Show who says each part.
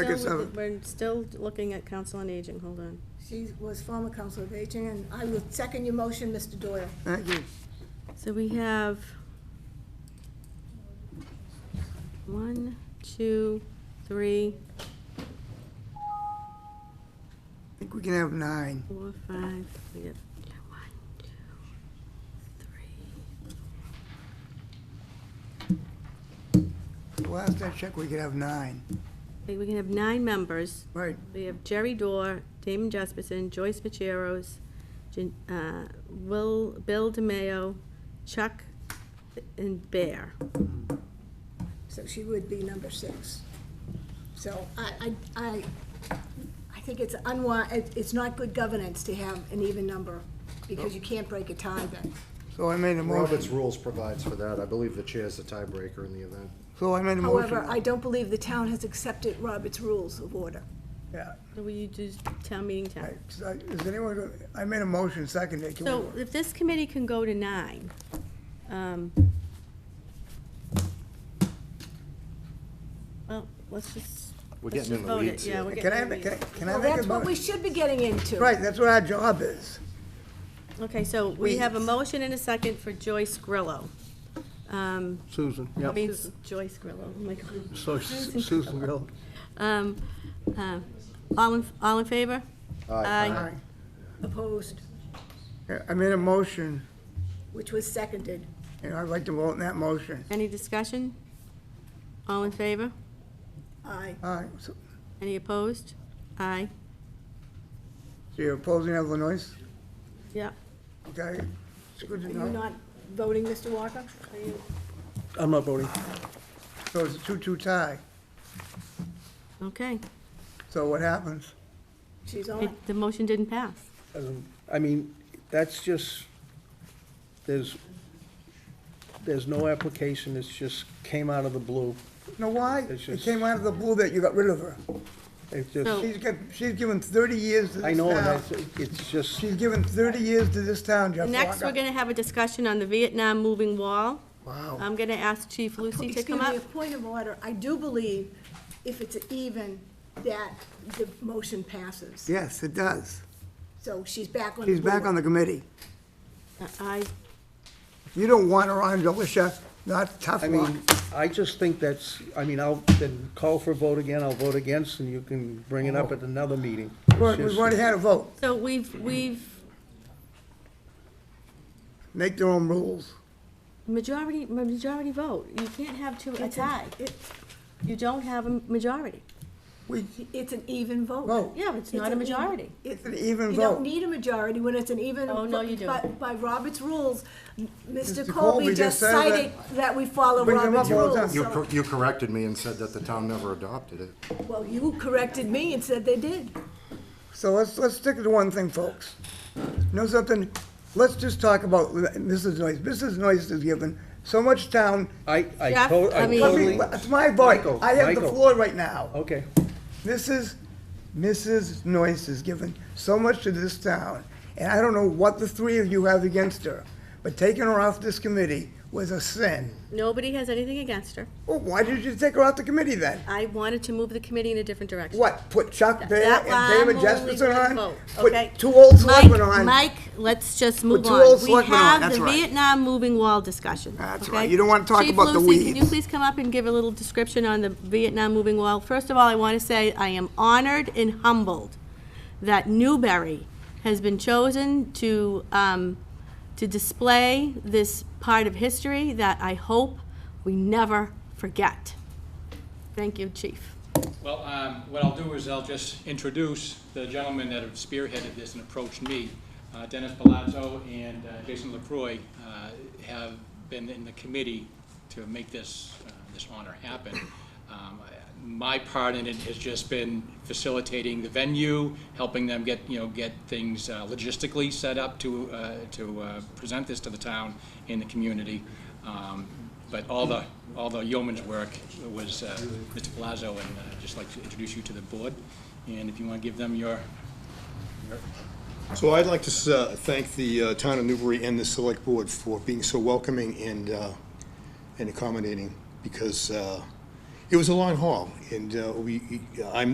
Speaker 1: Second,
Speaker 2: Still-
Speaker 1: seven.
Speaker 2: We're still looking at council on aging, hold on.
Speaker 3: She was former council of aging, and I will second your motion, Mr. Doyle.
Speaker 1: Thank you.
Speaker 2: So we have one, two, three,
Speaker 1: I think we can have nine.
Speaker 2: four, five, we got one, two, three.
Speaker 1: Last I checked, we could have nine.
Speaker 2: Okay, we can have nine members.
Speaker 1: Right,
Speaker 2: We have Jerry Dorr, Damon Jesperson, Joyce Macheros, Jan- uh, Will, Bill DeMayo, Chuck, and Bear.
Speaker 3: So she would be number six. So I, I, I, I think it's unwise, it's not good governance to have an even number, because you can't break a tie then.
Speaker 1: so I made a
Speaker 4: Robert's
Speaker 1: motion.
Speaker 4: rules provides for that. I believe the chair is the tiebreaker in the event.
Speaker 1: So I made a motion.
Speaker 3: However, I don't believe the town has accepted Robert's rules of order.
Speaker 1: Yeah,
Speaker 2: So will you do town meeting
Speaker 1: right.
Speaker 2: time?
Speaker 1: So Is anyone, go- I made a motion, second it. Can we-
Speaker 2: So if this committee can go to nine, um, well, let's just.
Speaker 4: We're
Speaker 2: let's
Speaker 4: getting in
Speaker 2: just
Speaker 4: the
Speaker 2: vote it.
Speaker 4: weeds
Speaker 2: Oh, Yeah,
Speaker 4: here.
Speaker 2: we're
Speaker 1: Can I,
Speaker 2: getting
Speaker 1: have
Speaker 2: in the
Speaker 1: it? can I-
Speaker 2: weeds.
Speaker 1: can I
Speaker 3: Well,
Speaker 1: make a
Speaker 3: that's what we
Speaker 1: motion?
Speaker 3: should be getting into.
Speaker 1: Right, that's what our job is.
Speaker 2: Okay, so we have a motion and a second for Joyce Grillo. Um,
Speaker 5: Susan,
Speaker 2: I
Speaker 5: yeah.
Speaker 2: mean, Joyce Grillo, oh my God.
Speaker 5: So Susan Grill.
Speaker 2: Um, uh, All in, all in favor?
Speaker 4: Aye.
Speaker 1: All right.
Speaker 3: Opposed,
Speaker 1: Yeah, I made a motion,
Speaker 3: which was seconded.
Speaker 1: and I'd like to vote in that motion.
Speaker 2: Any discussion? All in favor?
Speaker 3: Aye.
Speaker 1: All right, so
Speaker 2: Any opposed? Aye.
Speaker 1: so you're opposing Illinois?
Speaker 2: Yeah.
Speaker 1: Okay, it's good to
Speaker 3: Are you
Speaker 1: know.
Speaker 3: not voting, Mr. Walker? Are you?
Speaker 5: I'm not voting.
Speaker 1: So it's a two-two tie.
Speaker 2: Okay.
Speaker 1: So what happens?
Speaker 3: She's on.
Speaker 2: It- The motion didn't pass.
Speaker 5: Um, I mean, that's just, there's, there's no application, it's just came out of the blue.
Speaker 1: You know why?
Speaker 5: It's
Speaker 1: It
Speaker 5: just-
Speaker 1: came out of the blue that you got rid of her.
Speaker 5: It's
Speaker 2: So-
Speaker 5: just,
Speaker 1: She's got, she's given thirty years to this town.
Speaker 5: I know, and that's, it's just,
Speaker 1: She's given 30 years to this town, Jeff
Speaker 2: Next, we're
Speaker 1: Walker.
Speaker 2: going to have a discussion on the Vietnam moving wall.
Speaker 1: Wow.
Speaker 2: I'm going to ask Chief Lucy to
Speaker 3: Excuse
Speaker 2: come up.
Speaker 3: me, a point of order. I do believe if it's even, that the motion passes.
Speaker 1: Yes, it does.
Speaker 3: So she's back on the board.
Speaker 1: She's back on the committee.
Speaker 2: Uh, I,
Speaker 1: You don't want her on, Alicia, not tough
Speaker 5: I
Speaker 1: luck.
Speaker 5: mean, I just think that's, I mean, I'll, then call for a vote again, I'll vote against, and you can bring it up at another meeting. It's
Speaker 1: Look, We've
Speaker 5: just-
Speaker 1: already had a vote.
Speaker 2: so we've, we've,
Speaker 1: Make their own rules.
Speaker 2: majority, majority vote. You can't have two, a tie.
Speaker 3: It-
Speaker 2: You don't have a majority.
Speaker 1: We
Speaker 3: It's an even vote.
Speaker 1: vote.
Speaker 2: Yeah, it's not
Speaker 3: an
Speaker 2: a
Speaker 3: even-
Speaker 2: majority.
Speaker 1: It's an even
Speaker 3: You don't
Speaker 1: vote.
Speaker 3: need a majority when it's an even.
Speaker 2: Oh, no, you
Speaker 3: vote.
Speaker 2: do.
Speaker 3: But by Robert's rules, Mr.
Speaker 1: Mr.
Speaker 3: Colby just
Speaker 1: said that-
Speaker 3: cited that we follow
Speaker 1: Brings them
Speaker 3: Robert's
Speaker 1: up all the
Speaker 3: rules.
Speaker 4: You,
Speaker 3: so-
Speaker 4: cor- you corrected me and said that the town never adopted it.
Speaker 3: Well, you corrected me and said they did.
Speaker 1: So let's, let's stick to one thing, folks. Know something? Let's just talk about Mrs. Noyce. Mrs. Noyce has given so much town.
Speaker 5: I, I
Speaker 2: Jeff,
Speaker 5: to-
Speaker 2: I
Speaker 5: I
Speaker 2: mean-
Speaker 1: Let
Speaker 5: totally,
Speaker 1: me- It's my vote.
Speaker 5: Michael,
Speaker 1: I have the
Speaker 5: Michael.
Speaker 1: floor right now.
Speaker 5: okay.
Speaker 1: Mrs. Mrs. Noyce has given so much to this town, and I don't know what the three of you have against her, but taking her off this committee was a sin.
Speaker 2: Nobody has anything against her.
Speaker 1: Well, why did you take her off the committee then?
Speaker 2: I wanted to move the committee in a different direction.
Speaker 1: What, put Chuck Bear
Speaker 2: That
Speaker 1: and David
Speaker 2: I'm only
Speaker 1: Jesperson
Speaker 2: gonna
Speaker 1: on?
Speaker 2: vote, okay?
Speaker 1: Put two old
Speaker 2: Mike-
Speaker 1: selectmen on?
Speaker 2: Mike, let's just move
Speaker 1: two old
Speaker 2: on. We
Speaker 1: selectmen on,
Speaker 2: have
Speaker 1: that's
Speaker 2: the
Speaker 1: right.
Speaker 2: Vietnam moving wall discussion.
Speaker 1: That's
Speaker 2: okay?
Speaker 1: right. You don't wanna talk
Speaker 2: Chief
Speaker 1: about the
Speaker 2: Lucy, Can you
Speaker 1: weeds.
Speaker 2: please come up and give a little description on the Vietnam moving wall? First of all, I want to say I am honored and humbled that Newberry has been chosen to, um, to display this part of history that I hope we never forget. Thank you, Chief.
Speaker 6: Well, um, what I'll do is I'll just introduce the gentlemen that have spearheaded this and approached me. Uh, Dennis Palazzo and uh, Jason LaCroix uh, have been in the committee to make this, uh, this honor happen. Um, I- My part in it has just been facilitating the venue, helping them get, you know, get things uh, logistically set up to, uh, to uh, present this to the town and the community. Um, but all the, all the yeoman's work was uh, Mr. Palazzo, and uh, I'd just like to introduce you to the board. And if you want to give them your,
Speaker 7: So I'd like to uh, thank the uh, town of Newbury and the select board for being so welcoming and, uh, and accommodating, because uh, it was a long haul, and uh, we, I